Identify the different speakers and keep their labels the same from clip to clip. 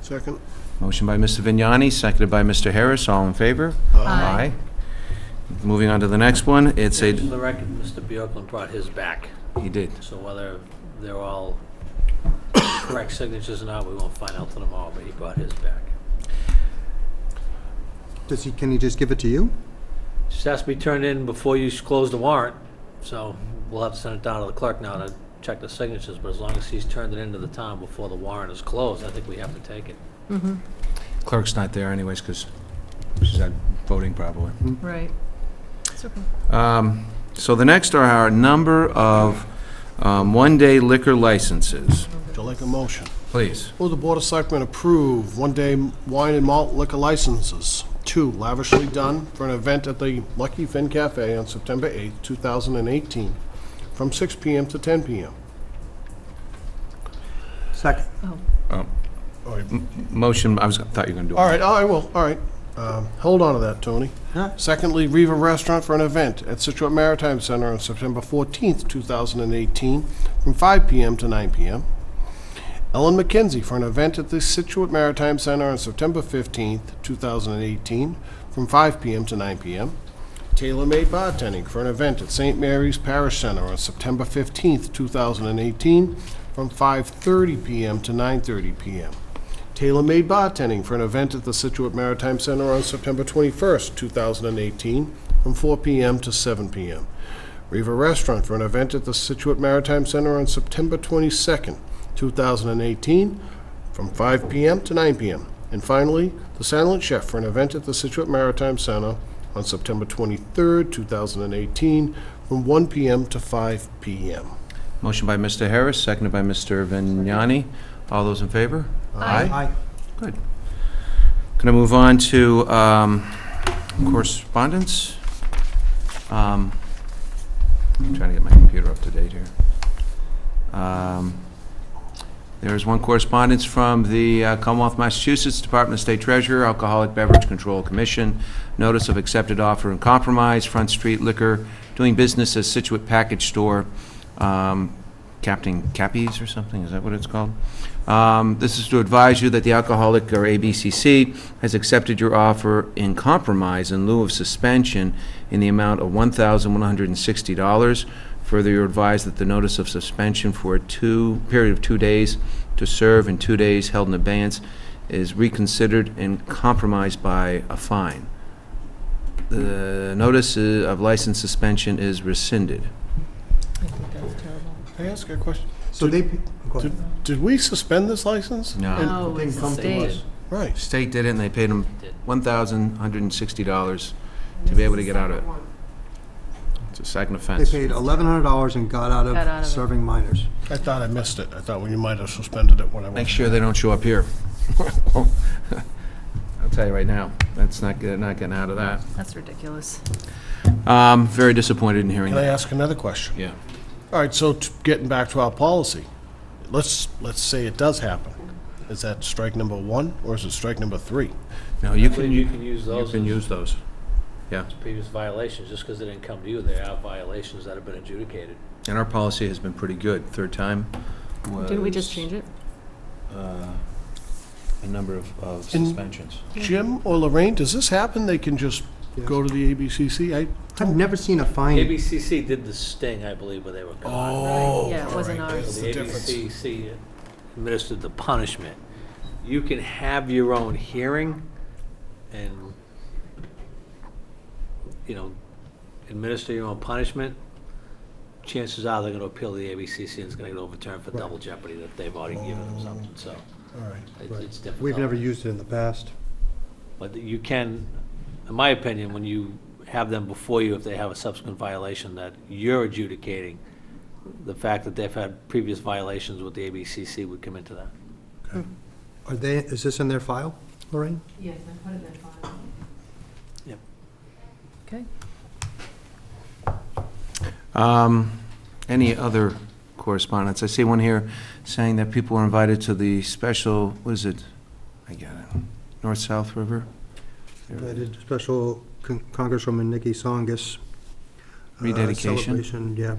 Speaker 1: Second?
Speaker 2: Motion by Mr. Vignani, seconded by Mr. Harris. All in favor?
Speaker 3: Uh,
Speaker 4: Aye.
Speaker 2: Moving on to the next one, it's a,
Speaker 5: Just For the record, Mr. Bjorklund brought his back,
Speaker 2: he did.
Speaker 5: so whether they're all correct signatures or not, we won't find out till tomorrow, but he brought his back.
Speaker 3: Does he, can he just give it to you?
Speaker 5: Just has to be turned in before you s- close the warrant, so we'll have to send it down to the clerk now to check the signatures, but as long as he's turned it into the town before the warrant is closed, I think we have to take it.
Speaker 2: Clerk's not there anyways, because she's not voting probably.
Speaker 4: Right. It's okay.
Speaker 2: Um, So the next are our number of um, one-day liquor licenses.
Speaker 1: Would you like a motion?
Speaker 2: Please.
Speaker 1: Will the Board of Selectmen approve one-day wine and malt liquor licenses? Two, lavishly done for an event at the Lucky Finn Cafe on September 8th, 2018, from 6 PM to 10 PM.
Speaker 3: Second.
Speaker 2: Motion, I was, thought you were going to do it.
Speaker 1: All right, I will, all right. Um, Hold on to that, Tony.
Speaker 3: Huh?
Speaker 1: Secondly, Riva Restaurant for an event at Situate Maritime Center on September 14th, 2018, from 5 p.m. to 9 p.m. Ellen McKenzie for an event at the Situate Maritime Center on September 15th, 2018, from 5 p.m. to 9 p.m. Taylor Made Bartending for an event at St. Mary's Parish Center on September 15th, 2018, from 5:30 p.m. to 9:30 p.m. Taylor Made Bartending for an event at the Situate Maritime Center on September 21st, 2018, from 4 p.m. to 7 p.m. Riva Restaurant for an event at the Situate Maritime Center on September 22nd, 2018, from 5 p.m. to 9 p.m. And finally, The Silent Chef for an event at the Situate Maritime Center on September 23rd, 2018, from 1 p.m. to 5 p.m.
Speaker 2: Motion by Mr. Harris, seconded by Mr. Vignani. All those in favor?
Speaker 3: Aye.
Speaker 2: Good. Going to move on to um, correspondence. Um, I'm trying to get my computer up to date here. Um, There is one correspondence from the uh, Commonwealth of Massachusetts Department of State Treasurer, Alcoholic Beverage Control Commission, notice of accepted offer and compromise, Front Street Liquor, doing business as Situate Package Store, um, Captain Cappies or something, is that what it's called? Um, This is to advise you that the alcoholic, or ABCC, has accepted your offer in compromise in lieu of suspension in the amount of $1,160. Further, you're advised that the notice of suspension for a two, period of two days to serve and two days held in abeyance is reconsidered and compromised by a fine. The notice i- of license suspension is rescinded.
Speaker 4: I think that's terrible.
Speaker 1: Can I ask a question?
Speaker 3: So they, go ahead.
Speaker 1: Did- Did we suspend this license?
Speaker 2: No.
Speaker 1: And-
Speaker 4: No,
Speaker 3: didn't
Speaker 4: Oh, it's a
Speaker 3: come to
Speaker 4: state.
Speaker 1: Right.
Speaker 2: State did it, and they paid them
Speaker 5: Did.
Speaker 2: $1,160 to be able to get out of it. It's a second
Speaker 3: they
Speaker 2: offense.
Speaker 3: paid $1,100 and got out
Speaker 4: Got out
Speaker 3: of
Speaker 4: of it.
Speaker 3: serving minors.
Speaker 1: I thought I missed it. I thought well, you might have suspended it when I
Speaker 2: Make
Speaker 1: went.
Speaker 2: sure they don't show up here. I'll tell you right now, that's not, good- not getting out of that.
Speaker 4: That's ridiculous.
Speaker 2: Um, very disappointed in hearing
Speaker 1: Can I
Speaker 2: that.
Speaker 1: ask another question?
Speaker 2: Yeah.
Speaker 1: All right, so t- getting back to our policy, let's, let's say it does happen. Is that strike number one, or is it strike number three?
Speaker 2: No, you
Speaker 5: I believe
Speaker 2: can,
Speaker 5: you
Speaker 2: you
Speaker 5: can use those
Speaker 2: can
Speaker 5: as-
Speaker 2: use those. Yeah,
Speaker 5: previous violations, just because they didn't come to you, they are violations that have been adjudicated.
Speaker 2: and our policy has been pretty good. Third time was.
Speaker 4: Didn't we just change it?
Speaker 2: A number of, of
Speaker 1: In-
Speaker 2: suspensions.
Speaker 1: Jim or Lorraine, does this happen? They can just go to the ABCC? I,
Speaker 3: I've never seen a fine.
Speaker 5: ABCC did the sting, I believe, where they were caught.
Speaker 1: oh.
Speaker 4: Yeah, it wasn't ours.
Speaker 5: So
Speaker 1: the
Speaker 5: The
Speaker 1: difference.
Speaker 5: ABCC administered the punishment. You can have your own hearing and, you know, administer your own punishment. Chances are they're going to appeal to the ABCC and it's going to get overturned for double jeopardy that they've already given them something, so
Speaker 1: All right.
Speaker 5: it- it's difficult.
Speaker 3: We've never used it in the past.
Speaker 5: But you can, in my opinion, when you have them before you, if they have a subsequent violation that you're adjudicating, the fact that they've had previous violations with the ABCC would come into that.
Speaker 3: Are they, is this in their file, Lorraine?
Speaker 6: Yes, I put it in the file.
Speaker 5: Yep.
Speaker 4: Okay.
Speaker 2: Um, Any other correspondence? I see one here saying that people were invited to the special, what is it? I got it, North-South River?
Speaker 3: I did special Con- Congresswoman Nikki Songus. uh,
Speaker 2: Rededication?
Speaker 3: Celebration, yeah.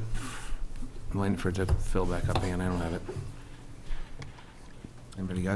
Speaker 2: I'm waiting for it to fill back up again, I don't have it. Anybody got it?